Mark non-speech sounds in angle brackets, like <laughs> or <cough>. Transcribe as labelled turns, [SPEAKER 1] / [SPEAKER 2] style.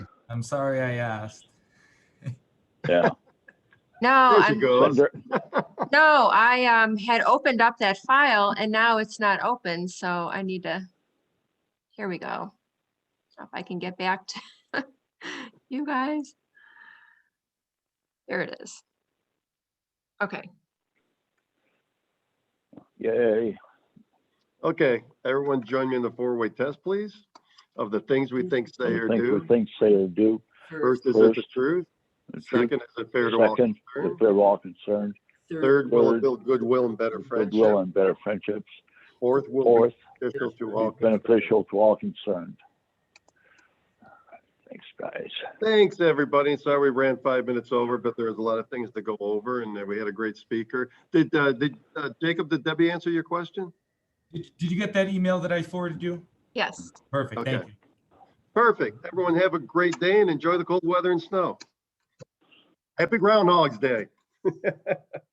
[SPEAKER 1] I'm sorry I asked.
[SPEAKER 2] <laughs> Yeah.
[SPEAKER 3] No, Oh,
[SPEAKER 4] There she
[SPEAKER 3] I'm,
[SPEAKER 4] goes.
[SPEAKER 2] Under-
[SPEAKER 3] no, I, um, had opened up that file and now it's not open, so I need to, here we go. So If I can get back to <laughs> you guys. There it is. Okay,
[SPEAKER 2] Yay.
[SPEAKER 4] Okay, everyone join me in the four-way test, please, of the things we think say or
[SPEAKER 2] Think-
[SPEAKER 4] do.
[SPEAKER 2] Think, say or do.
[SPEAKER 1] First,
[SPEAKER 4] First, is it the
[SPEAKER 2] First.
[SPEAKER 4] truth?
[SPEAKER 2] The truth.
[SPEAKER 4] Second, is it fair to all
[SPEAKER 2] Second, if
[SPEAKER 4] concerned?
[SPEAKER 2] they're all concerned.
[SPEAKER 1] third,
[SPEAKER 4] Third, will it
[SPEAKER 2] Third.
[SPEAKER 4] build goodwill and better
[SPEAKER 2] Goodwill
[SPEAKER 4] friendship?
[SPEAKER 2] and better friendships.
[SPEAKER 4] Fourth, will
[SPEAKER 2] Fourth,
[SPEAKER 4] it be beneficial to all
[SPEAKER 2] be
[SPEAKER 4] concerned?
[SPEAKER 2] beneficial to all concerned. Thanks, guys.
[SPEAKER 4] Thanks, everybody. Sorry we ran five minutes over, but there was a lot of things to go over and uh, we had a great speaker. Did, uh, did, uh, Jacob, did Debbie answer your question?
[SPEAKER 1] did did you get that email that I forwarded you?
[SPEAKER 3] yes,
[SPEAKER 1] Perfect, thank
[SPEAKER 4] Okay.
[SPEAKER 1] you.
[SPEAKER 4] Perfect. Everyone have a great day and enjoy the cold weather and snow. Happy Groundhog's Day.